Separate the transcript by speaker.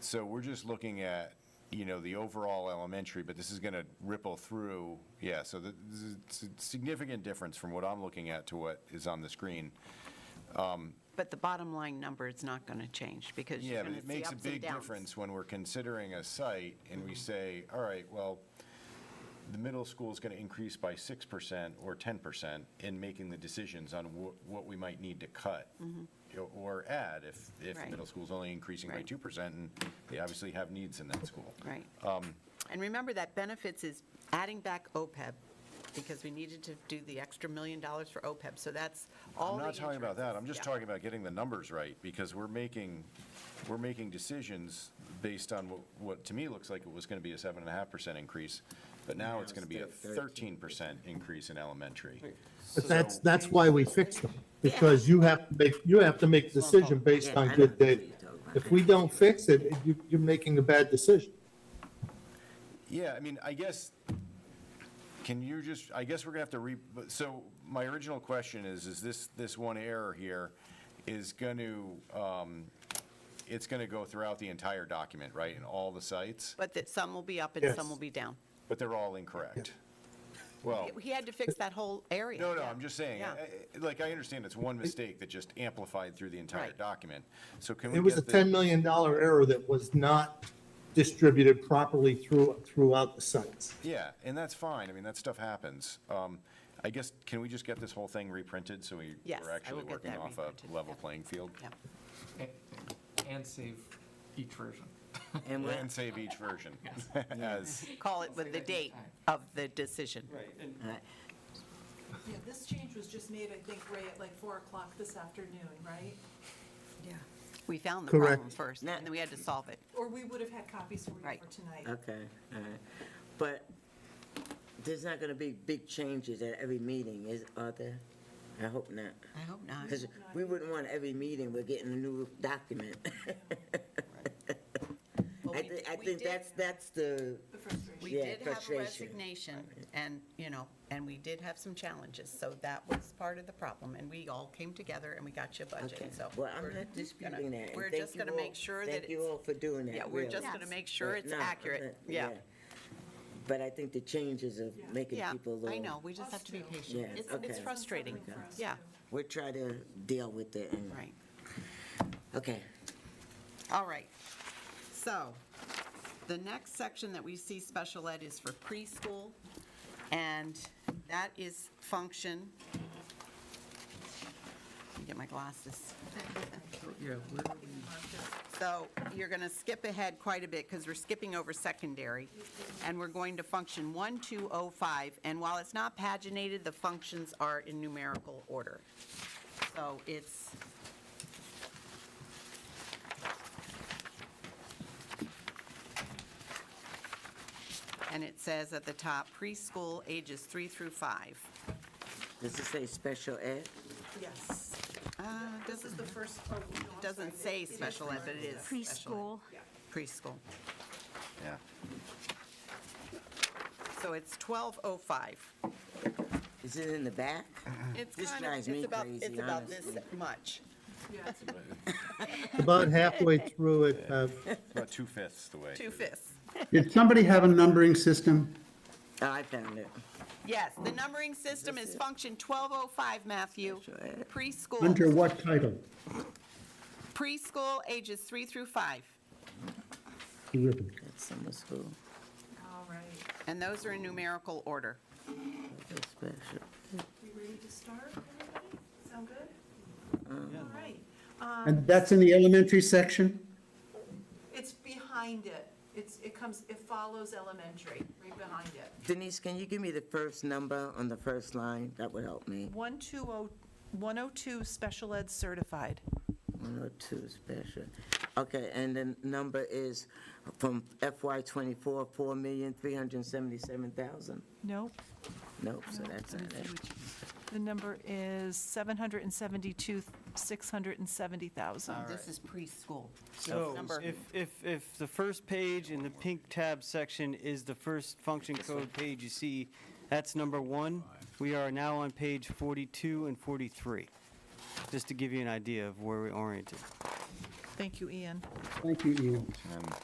Speaker 1: So we're just looking at, you know, the overall elementary, but this is going to ripple through, yeah, so th- this is it's a significant difference from what I'm looking at to what is on the screen.
Speaker 2: But the bottom line number is not going to change because
Speaker 1: Yeah,
Speaker 2: you're
Speaker 1: but
Speaker 2: going to
Speaker 1: it
Speaker 2: see
Speaker 1: makes a
Speaker 2: ups and
Speaker 1: big
Speaker 2: downs. Mm-hmm.
Speaker 1: difference when we're considering a site and we say, all right, well, the middle school is going to increase by 6% or 10% in making the decisions on wh- what we might need to cut o- or add if, if the
Speaker 2: Mm-hmm. Right.
Speaker 1: middle school's only increasing by
Speaker 2: Right.
Speaker 1: 2% and they obviously have needs in that school.
Speaker 2: Right.
Speaker 1: Um,
Speaker 2: And remember that benefits is adding back OPEB because we needed to do the extra million dollars for OPEB. So that's all
Speaker 1: I'm
Speaker 2: the
Speaker 1: not talking about that,
Speaker 2: insurances.
Speaker 1: I'm just
Speaker 2: Yeah.
Speaker 1: talking about getting the numbers right, because we're making, we're making decisions based on what, what to me looks like it was gonna be a seven and a half percent increase, but now it's gonna be a thirteen percent increase in elementary.
Speaker 3: But that's, that's why we fix them, because you have, to make you have to make a decision based on good data. If we don't fix it, you, you're making a bad decision.
Speaker 1: Yeah, I mean, I guess, can you just, I guess we're gonna have to re, but- so my original question is, is this, this one error here is gonna, um, it's gonna go throughout the entire document, right, in all the sites,
Speaker 2: But that some will be up and some
Speaker 3: Yes.
Speaker 2: will be down.
Speaker 1: but they're all incorrect? Well.
Speaker 2: He had to fix that whole area.
Speaker 1: Oh. No, no,
Speaker 2: Yeah.
Speaker 1: I'm just saying,
Speaker 2: Yeah.
Speaker 1: I- I- like, I understand it's one mistake that just amplified through the entire
Speaker 2: Right.
Speaker 1: document. So can we
Speaker 3: It was a
Speaker 1: get the-
Speaker 3: ten million dollar error that was not distributed properly through, throughout the sites.
Speaker 1: Yeah, and that's fine. I mean, that stuff happens. Um, I guess, can we just get this whole thing reprinted so we,
Speaker 2: Yes,
Speaker 1: we're
Speaker 2: I
Speaker 1: actually
Speaker 2: will get
Speaker 1: working
Speaker 2: that
Speaker 1: off a
Speaker 2: reprinted,
Speaker 1: level
Speaker 2: yeah.
Speaker 1: playing field?
Speaker 2: Yeah.
Speaker 4: And save each version.
Speaker 5: And we're,
Speaker 1: And save each version as,
Speaker 2: Call it with the date of the decision.
Speaker 4: Right, and
Speaker 5: alright.
Speaker 6: Yeah, this change was just made, I think, Ray, at like 4 o'clock this afternoon, right?
Speaker 2: We found the problem
Speaker 3: Correct.
Speaker 2: first,
Speaker 5: Now-
Speaker 2: and then we had to solve it.
Speaker 6: Or we would have had copies for you
Speaker 2: Right.
Speaker 6: for tonight.
Speaker 5: okay, all right. But there's not gonna be big changes at every meeting, is, are there? I hope not.
Speaker 2: I hope not.
Speaker 5: Because we wouldn't want every meeting, we're getting a new document. I thi- I think that's, that's the,
Speaker 6: The frustration.
Speaker 2: We
Speaker 5: Yeah,
Speaker 2: did have a
Speaker 5: frustration.
Speaker 2: resignation, and, you know, and we did have some challenges, so that was part of the problem, and we all came together and we got you a
Speaker 5: okay.
Speaker 2: budget, so.
Speaker 5: Well,
Speaker 2: we're
Speaker 5: I'm not
Speaker 2: just gonna-
Speaker 5: disputing that. and
Speaker 2: We're
Speaker 5: thank
Speaker 2: just
Speaker 5: you
Speaker 2: gonna
Speaker 5: all-
Speaker 2: make sure that
Speaker 5: Thank you
Speaker 2: it's,
Speaker 5: all for doing that.
Speaker 2: yeah, we're
Speaker 5: really.
Speaker 2: just gonna make sure
Speaker 5: But
Speaker 2: it's
Speaker 5: no, I'm
Speaker 2: accurate,
Speaker 5: not-
Speaker 2: yeah.
Speaker 5: But I think the changes of making
Speaker 2: Yeah,
Speaker 5: people a
Speaker 2: I
Speaker 5: little-
Speaker 2: know, we just have to be
Speaker 6: Us too.
Speaker 2: patient.
Speaker 5: Yeah,
Speaker 2: It's, it's
Speaker 5: okay.
Speaker 2: frustrating,
Speaker 6: Suffering for us,
Speaker 2: yeah,
Speaker 6: too.
Speaker 5: We'll try to deal with it and,
Speaker 2: right.
Speaker 5: okay.
Speaker 2: All right. So the next section that we see special ed is for preschool, and that is function. Let me Get my glasses.
Speaker 4: yeah, where are we?
Speaker 2: So you're going to skip ahead quite a bit because we're skipping over secondary, and we're going to function 1205. And while it's not paginated, the functions are in numerical order. So it's, and it says at the top preschool ages three through five.
Speaker 5: Does it say special ed?
Speaker 6: Yes.
Speaker 2: Uh,
Speaker 6: This is
Speaker 2: doesn't-
Speaker 6: the first, oh, no, I'm
Speaker 2: It doesn't
Speaker 6: sorry.
Speaker 2: say
Speaker 6: It- it is
Speaker 2: special ed, but it is. special
Speaker 7: preschool.
Speaker 2: ed. Preschool.
Speaker 1: yeah.
Speaker 2: So it's 1205.
Speaker 5: Is it in the back?
Speaker 2: It's
Speaker 5: This
Speaker 2: kind of,
Speaker 5: drives me
Speaker 2: it's about,
Speaker 5: crazy,
Speaker 2: it's about this
Speaker 5: honestly.
Speaker 2: much.
Speaker 6: Yeah, it's
Speaker 3: About halfway through it, uh,
Speaker 1: About two-fifths the way.
Speaker 2: Two fifths.
Speaker 8: Did somebody have a numbering system?
Speaker 5: Oh, I found it.
Speaker 2: Yes, the numbering system is function 1205, Matthew.
Speaker 5: Special ed.
Speaker 2: Preschool,
Speaker 8: Under what title?
Speaker 2: preschool ages three through five.
Speaker 8: Terrific.
Speaker 5: That's summer school.
Speaker 6: all right.
Speaker 2: And those are in numerical order.
Speaker 5: That's special.
Speaker 6: We ready to start, everybody? Sound good? All right.
Speaker 8: And that's in the elementary section?
Speaker 6: It's behind it. It's, it comes, it follows elementary, right behind it.
Speaker 5: Denise, can you give me the first number on the first line? That would help me.
Speaker 2: oh,
Speaker 6: 120 102 special ed certified.
Speaker 5: 102 special. Okay, and the number is from FY '24, 4,377,000?
Speaker 9: Nope,
Speaker 5: Nope, so that's not it.
Speaker 9: the number is 772, 670,000.
Speaker 2: This is preschool.
Speaker 10: So
Speaker 2: Number-
Speaker 10: if, if, if the first page in the pink tab section is the first function code page you see, that's number one. We are now on page 42 and 43, just to give you an idea of where we're oriented.
Speaker 11: Thank you, Ian.
Speaker 6: Thank you, Ian.
Speaker 1: And